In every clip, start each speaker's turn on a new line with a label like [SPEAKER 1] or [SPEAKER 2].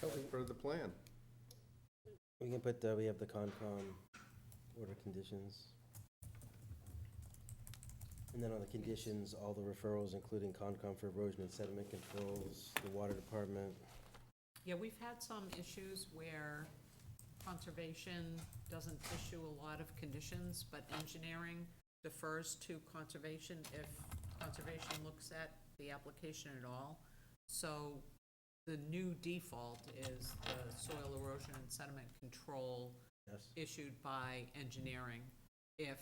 [SPEAKER 1] something for the plan.
[SPEAKER 2] We can put, uh, we have the Concom order conditions. And then on the conditions, all the referrals, including Concom for erosion and sediment controls, the water department.
[SPEAKER 3] Yeah, we've had some issues where conservation doesn't issue a lot of conditions, but engineering defers to conservation if conservation looks at the application at all. So the new default is the soil erosion and sediment control
[SPEAKER 2] Yes.
[SPEAKER 3] issued by engineering, if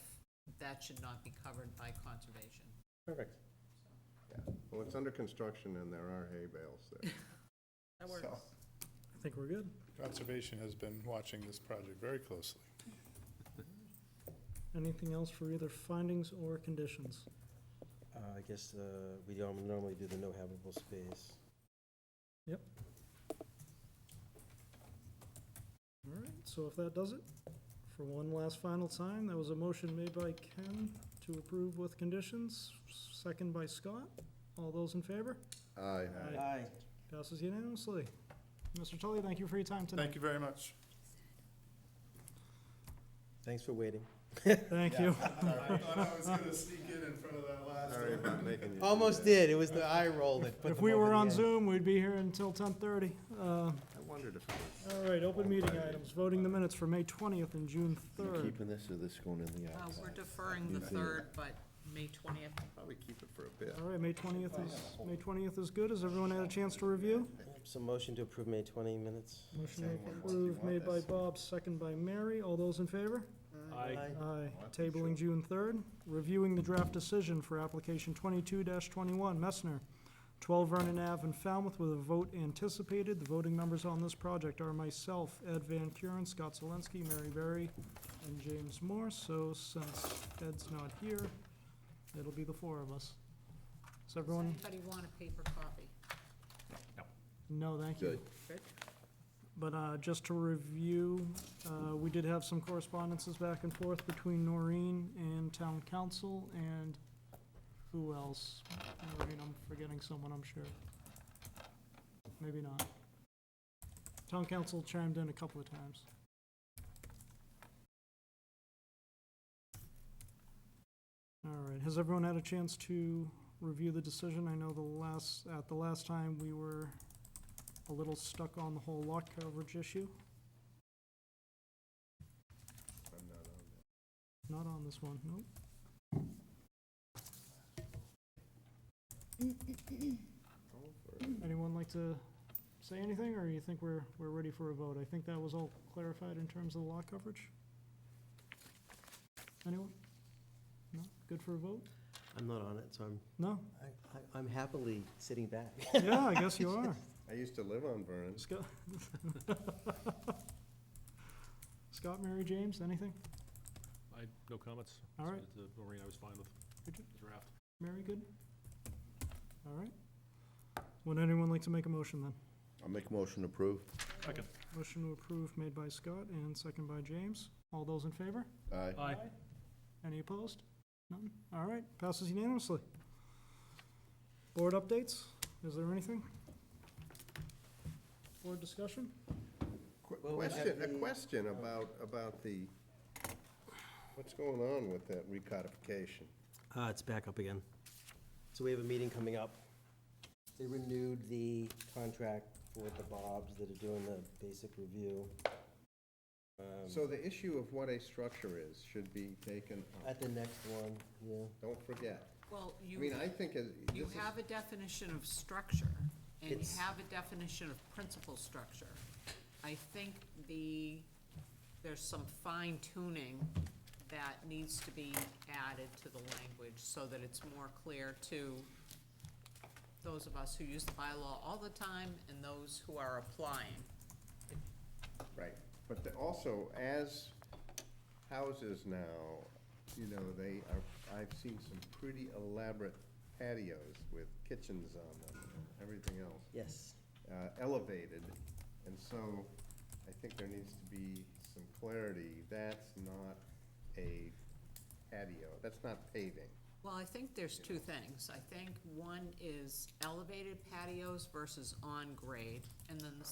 [SPEAKER 3] that should not be covered by conservation.
[SPEAKER 2] Perfect.
[SPEAKER 1] Well, it's under construction and there are hay bales there.
[SPEAKER 3] That works. Uh,
[SPEAKER 4] So,
[SPEAKER 5] I think we're good.
[SPEAKER 4] Conservation has been watching this project very closely.
[SPEAKER 5] Anything else for either findings or conditions?
[SPEAKER 2] Uh, I guess, uh, we all normally do the no habitable space.
[SPEAKER 5] All right, so if that does it, for one last final time, that was a motion made by Ken to approve with conditions, second by Scott. All those in favor?
[SPEAKER 1] Aye.
[SPEAKER 5] Aye. Passes unanimously. Mr. Tully, thank you for your time
[SPEAKER 4] Thank
[SPEAKER 5] tonight.
[SPEAKER 4] you very much.
[SPEAKER 2] Thanks for waiting.
[SPEAKER 5] Thank you.
[SPEAKER 4] I thought I was gonna sneak in in front of that last
[SPEAKER 1] Sorry
[SPEAKER 4] one.
[SPEAKER 1] about making you. do
[SPEAKER 2] Almost
[SPEAKER 1] that.
[SPEAKER 2] did, it was the eye roll that put
[SPEAKER 5] If
[SPEAKER 2] them
[SPEAKER 5] we
[SPEAKER 2] over
[SPEAKER 5] were
[SPEAKER 2] the
[SPEAKER 5] on
[SPEAKER 2] edge.
[SPEAKER 5] Zoom, we'd be here until ten thirty. All
[SPEAKER 1] I wondered if it
[SPEAKER 5] right, open meeting items, voting the minutes for May twentieth and June third.
[SPEAKER 6] this or this going in the
[SPEAKER 3] Uh, we're deferring the third, but May twentieth
[SPEAKER 1] was, probably keep it for a bit.
[SPEAKER 5] All right, May twentieth is, May twentieth is good. Has everyone had a chance to review?
[SPEAKER 2] So motion to approve May twenty minutes.
[SPEAKER 5] Motion
[SPEAKER 1] Anyone wants to
[SPEAKER 5] approved,
[SPEAKER 1] want
[SPEAKER 5] made by
[SPEAKER 1] this?
[SPEAKER 5] Bob, second by Mary. All those in favor?
[SPEAKER 2] Aye.
[SPEAKER 5] Aye.
[SPEAKER 1] that's for
[SPEAKER 5] Tabling June third. Reviewing the draft decision for application twenty-two twenty-one, Messner, twelve Vernon Ave in Falmouth with a vote anticipated. The voting members on this project are myself, Ed Van Kuren, Scott Zelinski, Mary Berry, and James Moore. So since Ed's not here, it'll be the four of us. Does everyone,
[SPEAKER 3] Does anybody want a paper copy?
[SPEAKER 5] no, thank you.
[SPEAKER 1] Good.
[SPEAKER 3] Good.
[SPEAKER 5] But uh, just to review, uh, we did have some correspondences back and forth between Noreen and Town Council and who else? Noreen, I'm forgetting someone, I'm sure. Maybe not. Town Council chimed in a couple of times. All right, has everyone had a chance to review the decision? I know the last, at the last time, we were a little stuck on the whole lot coverage issue.
[SPEAKER 1] I'm not on that.
[SPEAKER 5] Not on this one, nope.
[SPEAKER 1] Oh, for-
[SPEAKER 5] Anyone like to say anything, or you think we're, we're ready for a vote? I think that was all clarified in terms of the lot coverage. Anyone? No? Good for a vote?
[SPEAKER 2] I'm not on it, so I'm,
[SPEAKER 5] No?
[SPEAKER 2] I- I- I'm happily sitting back.
[SPEAKER 5] Yeah, I guess you are.
[SPEAKER 1] I used to live on Vernon.
[SPEAKER 5] Scott? Scott, Mary, James, anything?
[SPEAKER 7] I, no comments.
[SPEAKER 5] All right.
[SPEAKER 7] Submitted to Noreen, I was fine with
[SPEAKER 5] Richard?
[SPEAKER 7] the draft.
[SPEAKER 5] Mary, good? All right. Would anyone like to make a motion then?
[SPEAKER 6] I'll make a motion to approve.
[SPEAKER 7] Second.
[SPEAKER 5] Motion to approve made by Scott and second by James. All those in favor?
[SPEAKER 6] Aye.
[SPEAKER 7] Aye.
[SPEAKER 5] Any opposed? None? All right, passes unanimously. Board updates? Is there anything? Board discussion?
[SPEAKER 1] Qu-
[SPEAKER 2] Well, we
[SPEAKER 1] Question, a
[SPEAKER 2] have the-
[SPEAKER 1] question about, about the, what's going on with that recodification?
[SPEAKER 2] Uh, it's back up again. So we have a meeting coming up. They renewed the contract for the Bobs that are doing the basic review. Um,
[SPEAKER 1] So the issue of what a structure is should be taken up.
[SPEAKER 2] At the next one, yeah.
[SPEAKER 1] Don't forget.
[SPEAKER 3] Well,
[SPEAKER 1] I
[SPEAKER 3] you.
[SPEAKER 1] mean, I think it- this
[SPEAKER 3] You
[SPEAKER 1] is.
[SPEAKER 3] have a definition of structure, and you
[SPEAKER 2] It's-
[SPEAKER 3] have a definition of principal structure. I think the, there's some fine tuning that needs to be added to the language so that it's more clear to those of us who use the bylaw all the time and those who are applying.
[SPEAKER 1] Right, but the- also, as houses now, you know, they are, I've seen some pretty elaborate patios with kitchens on them, and everything else,
[SPEAKER 2] Yes.
[SPEAKER 1] uh, elevated. And so I think there needs to be some clarity, that's not a patio, that's not paving.
[SPEAKER 3] Well, I think there's two things. I think one is elevated patios versus on-grade, and then the